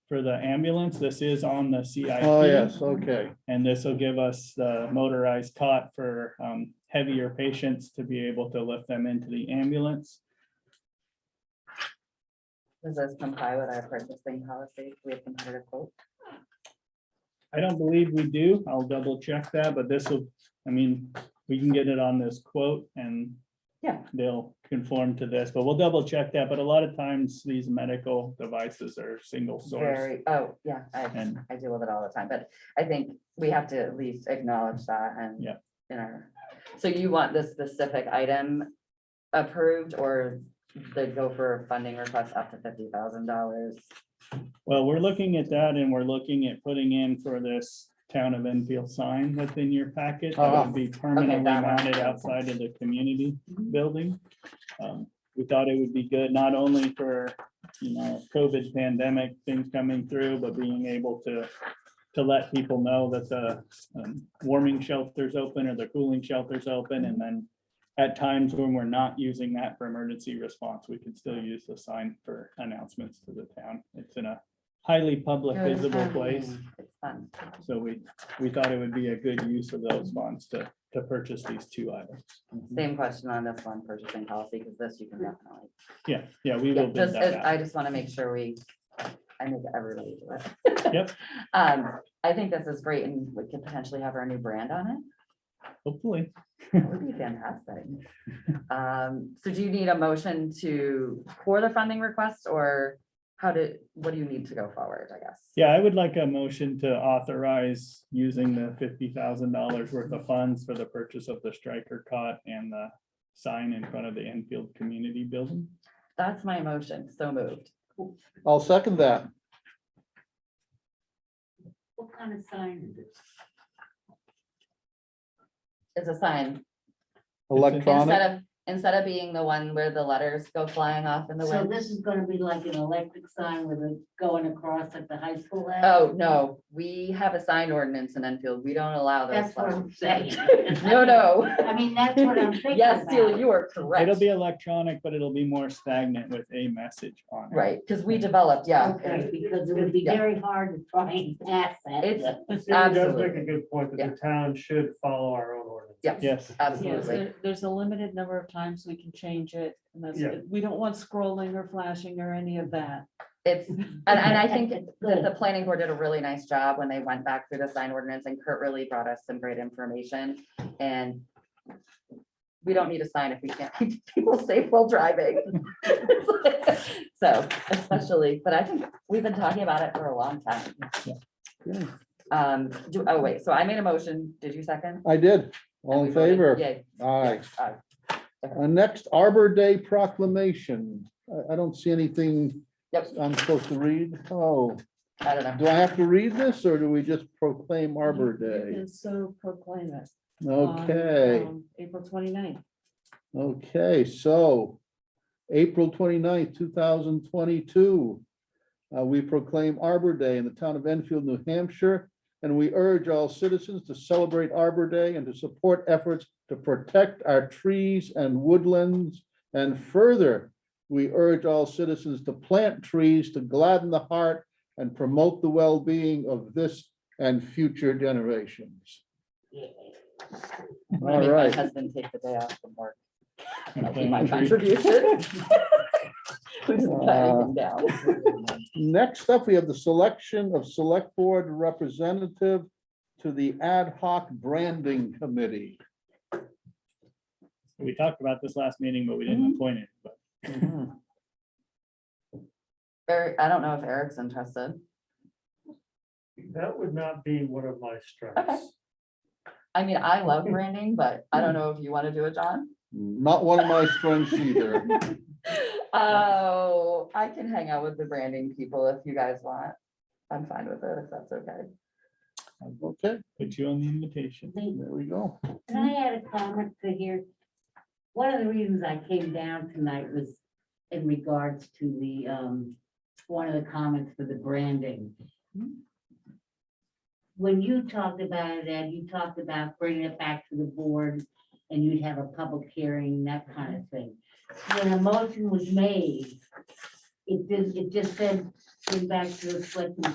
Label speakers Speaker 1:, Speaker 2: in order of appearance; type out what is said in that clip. Speaker 1: for the ambulance, this is on the CIP.
Speaker 2: Oh, yes, okay.
Speaker 1: And this will give us the motorized cot for um, heavier patients to be able to lift them into the ambulance.
Speaker 3: Does this comply with our purchasing policy? We have competitive quote.
Speaker 1: I don't believe we do. I'll double check that, but this will, I mean, we can get it on this quote and
Speaker 3: Yeah.
Speaker 1: they'll conform to this, but we'll double check that. But a lot of times these medical devices are single source.
Speaker 3: Very, oh, yeah, I,
Speaker 1: And-
Speaker 3: I deal with it all the time, but I think we have to at least acknowledge that and.
Speaker 1: Yeah.
Speaker 3: In our, so you want this specific item approved or the gopher funding request up to fifty thousand dollars?
Speaker 1: Well, we're looking at that and we're looking at putting in for this town of Enfield sign that's in your packet. That would be permanently
Speaker 3: that one.
Speaker 1: mounted outside of the community building. Um, We thought it would be good, not only for, you know, COVID pandemic things coming through, but being able to to let people know that the um, warming shelter's open or the cooling shelter's open, and then at times when we're not using that for emergency response, we can still use the sign for announcements to the town. It's in a highly public visible place,
Speaker 3: It's fun.
Speaker 1: so we, we thought it would be a good use of those funds to, to purchase these two items.
Speaker 3: Same question on this one, purchasing policy, because this you can definitely.
Speaker 1: Yeah, yeah, we
Speaker 3: Yeah,
Speaker 1: will bid
Speaker 3: just,
Speaker 1: that
Speaker 3: as-
Speaker 1: out.
Speaker 3: I just want to make sure we, I make everybody do it.
Speaker 1: Yep.
Speaker 3: Um, I think this is great and we could potentially have our new brand on it.
Speaker 1: Hopefully,
Speaker 3: That would be fantastic. Um, so do you need a motion to, for the funding request or how did, what do you need to go forward, I guess?
Speaker 1: yeah, I would like a motion to authorize using the fifty thousand dollars worth of funds for the purchase of the striker cot and the sign in front of the Enfield Community Building.
Speaker 3: That's my motion, so moved.
Speaker 2: I'll second that.
Speaker 4: What kind of sign is it?
Speaker 3: It's a sign.
Speaker 2: Electronic.
Speaker 3: Instead of, instead of being the one where the letters go flying off in the
Speaker 4: So
Speaker 3: wind.
Speaker 4: this is gonna be like an electric sign with it going across at the high school. end?
Speaker 3: Oh, no, we have a sign ordinance in Enfield. We don't allow those.
Speaker 4: That's what I'm
Speaker 3: flashing
Speaker 4: saying.
Speaker 3: signs. No, no.
Speaker 4: I mean, that's what I'm thinking
Speaker 3: Yes, Celia,
Speaker 4: about.
Speaker 3: you are correct.
Speaker 1: It'll be electronic, but it'll be more stagnant with a message on it.
Speaker 3: Right, because we developed, yeah.
Speaker 4: Okay, because it would be
Speaker 3: Yeah.
Speaker 4: very hard to try and pass that.
Speaker 3: It's
Speaker 5: But Cindy does make
Speaker 3: Absolutely.
Speaker 5: a good point
Speaker 3: Yeah.
Speaker 5: that the town should follow our own ordinance.
Speaker 3: Yes,
Speaker 1: Yes,
Speaker 6: Yes,
Speaker 3: absolutely.
Speaker 6: there- there's a limited number of times we can change it. and that's-
Speaker 5: Yeah.
Speaker 6: We don't want scrolling or flashing or any of that.
Speaker 3: It's, and, and I think that the planning board did a really nice job when they went back through the sign ordinance and Kurt really brought us some great information and we don't need a sign if we can't keep people safe while driving. So especially, but I think we've been talking about it for a long time.
Speaker 2: Yeah.
Speaker 3: Um, do, oh wait, so I made a motion. Did you second?
Speaker 2: I did. All in
Speaker 3: And we voted
Speaker 2: favor?
Speaker 3: Yay.
Speaker 2: Aye.
Speaker 3: Aye.
Speaker 2: Uh, next Arbor Day proclamation. I, I don't see anything
Speaker 3: Yep.
Speaker 2: I'm supposed to read. Oh,
Speaker 3: I don't know.
Speaker 2: do I have to read this or do we just proclaim Arbor
Speaker 6: You
Speaker 2: Day?
Speaker 6: can So proclaim it. on,
Speaker 2: Okay.
Speaker 6: um, April 29th.
Speaker 2: Okay, so April 29th, thousand twenty-two. uh, we proclaim Arbor Day in the town of Enfield, New Hampshire. And we urge all citizens to celebrate Arbor Day and to support efforts to protect our trees and woodlands. And further, we urge all citizens to plant trees to gladden the heart and promote the well-being of this and future generations.
Speaker 3: I'm gonna
Speaker 2: All
Speaker 3: make my
Speaker 2: right.
Speaker 3: husband take the day off from work. That'll be
Speaker 1: Okay.
Speaker 3: my contribution. We just cut everything down.
Speaker 2: Next up, we have the selection of select board representative to the ad hoc branding committee.
Speaker 1: we talked about this last meeting, but we
Speaker 3: Mm-hmm.
Speaker 1: didn't appoint it, but
Speaker 3: Eric, I don't know if Eric's interested.
Speaker 5: That would not be one of my
Speaker 3: Okay.
Speaker 5: strengths.
Speaker 3: I mean, I love branding, but I don't know if you want to do it, John.
Speaker 2: Not one of my strengths either.
Speaker 3: Oh, I can hang out with the branding people if you guys want. I'm fine with it, if that's okay.
Speaker 2: Okay,
Speaker 1: put you on the invitation.
Speaker 4: The-
Speaker 2: there we go.
Speaker 4: Can I add a comment to here? One of the reasons I came down tonight was in regards to the, um, one of the comments for the branding. When you talked about it, Ed, you talked about bringing it back to the board and you'd have a public hearing, that kind of thing. When a motion was made, it did, it just said came back to reflect on